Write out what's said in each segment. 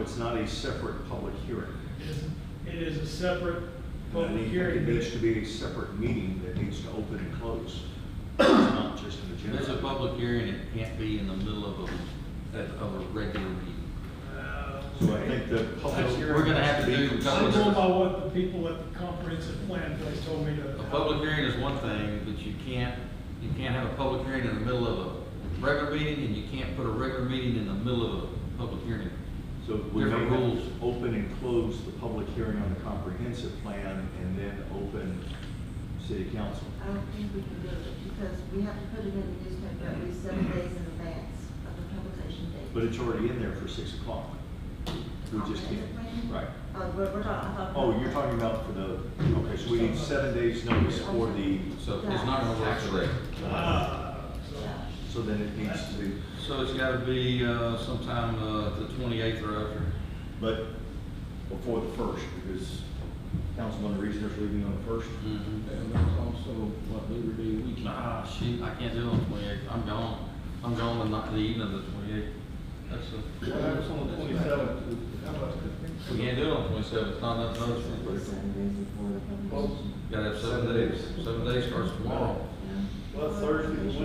it's not a separate public hearing. It is a separate And I public think hearing. It needs to be a separate meeting that needs to open and close, not just an If agenda. There's a public hearing, it can't be in the middle of a, of a regular meeting. Uh, So I think the public So hearing. we're gonna have to needs do- I'm going by what the people at the comprehensive plan place told me to. A public hearing is one thing, but you can't, you can't have a public hearing in the middle of a regular meeting, and you can't put a regular meeting in the middle of a public hearing. So we may Different rules. open and close the public hearing on the comprehensive plan and then open city council. I don't think we can do it because we have to put it in the newspaper at least seven days in advance of the publication date. But it's already in there for six o'clock. We just can't, Comprehensive plan? right. Oh, we're, we're talking, I thought. Oh, you're talking about for the, okay, so we need seven days notice for the, uh, So it's not gonna work today. Ah, so- so then it needs to be, So it's gotta be, uh, sometime, uh, the twenty-eighth or after. but before the first, because Councilman Reasoner's leaving on the first. Mm-hmm. And that's also what Labor Day weekend. Ah, shoot, I can't do it on the twenty-eighth, I'm gone, I'm gone the night, the evening of the twenty-eighth. That's the. What happens on the twenty-seventh? How about We can't do it on the twenty-seventh, it's not enough notice. Seven days before the publication. Gotta have seven days, seven days starts tomorrow. Well, Thursday, Can you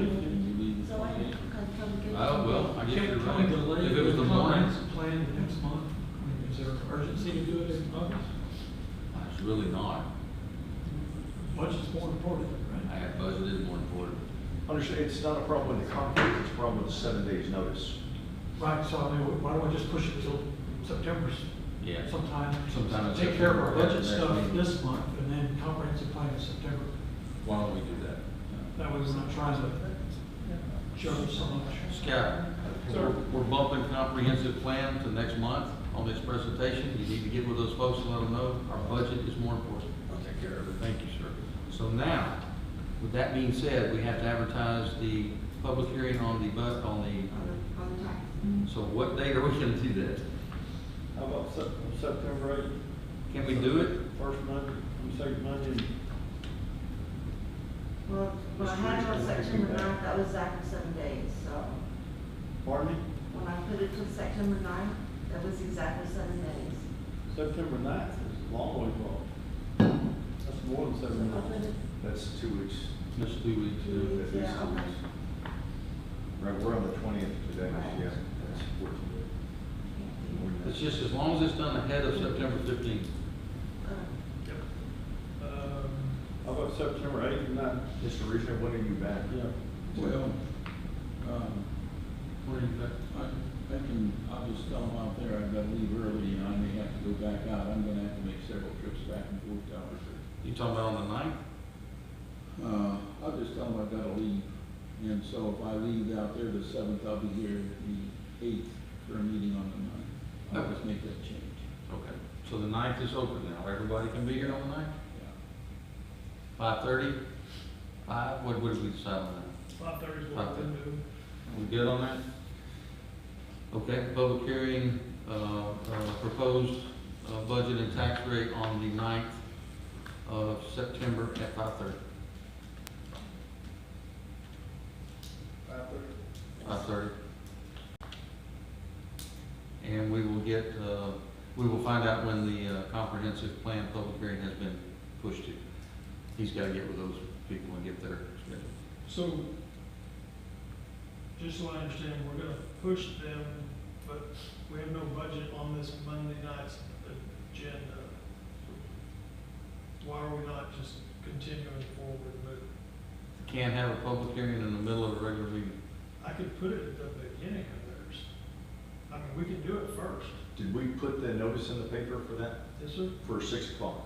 leave the So why didn't you 28th? come publication? Oh, well, I guess you're right. If it was the morning, comprehensive Plan the next month, I mean, is there urgency to do it in August? uh, it's really not. Budget's more important, I right? have budgeted more important. Understand, it's not a problem with the concrete, it's a problem with the seven days notice. Right, so I mean, why don't we just push it till September Yeah. sometime? Sometime in Take care of our September, budget next stuff meeting. this month, and then comprehensive plan in September. Why don't we do that? That way we're not trying to juggle so much. Scott, Sir. we're bumping comprehensive plan to next month on this presentation. You need to get with those folks and let them know our budget is more important. I'll take care of it. Thank you, sir. So now, with that being said, we have to advertise the public hearing on the, bu- on On the, on the tax. the, so what date are we gonna do that? How about Sep- September eighth, Can we do it? first Monday, and second Monday? Well, when I had it on Restrict- September ninth, that was exactly seven days, so Pardon me? when I put it to September ninth, that was exactly seven days. September ninth is a long way off. That's more than So seven I put months. it That's two weeks. Let's do it. uh, two too. weeks, yeah, on my- Right, we're on the twentieth today, Right. yeah. that's 14. It's just as long as it's done ahead of September fifteenth. Uh, Um, How about September eighth and ninth? Mr. Reasoner, when are you back? Yeah. Well, um, What do you think? I, I can, I'll just tell them out there, I've got to leave early and I may have to go back out. I'm gonna have to make several trips back and forth to Albuquerque. You talking about on the ninth? Uh, I'll just tell them I've got to leave. And so if I leave out there the seventh, I'll be here the eighth for a meeting on the ninth. I'll just make that change. Okay, so the ninth is open now, everybody can be here on the ninth? Yeah. Five thirty? Five, what, what did we decide on that? five thirty is what I'm gonna do. We good on that? Okay, public hearing, uh, uh, proposed, uh, budget and tax rate on the ninth of September at five thirty. Five thirty. And we will get, uh, we will find out when the uh, comprehensive plan public hearing has been pushed to. He's gotta get with those people and get their schedule. So, just so I understand, we're gonna push them, but we have no budget on this Monday night's agenda. Why are we not just continuing forward, but Can't have a public hearing in the middle of a regular meeting. I could put it at the beginning of theirs. I mean, we can do it first. Did we put the notice in the paper for that, Yes, sir. for six o'clock?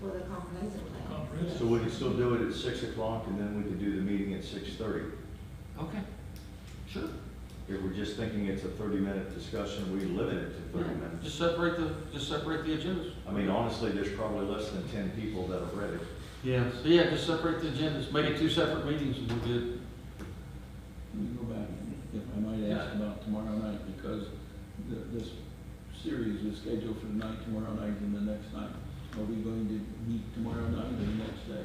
For the comprehensive plan. Comprehensive. So we can still do it at six o'clock, and then we could do the meeting at six thirty. Okay, sure. If we're just thinking it's a thirty-minute discussion, we limit it to thirty minutes. Just separate the, just separate the agendas. I mean, honestly, there's probably less than ten people that have read it. Yeah, so yeah, just separate the agendas, make it two separate meetings and we're good. Let me go back, if I might ask about tomorrow night, because th- this series is scheduled for tonight, tomorrow night, and the next night. Are we going to meet tomorrow night or the next day?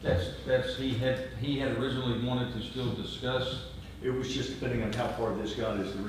That's, that's, he had, he had originally wanted to still discuss It was just depending on how far this got as the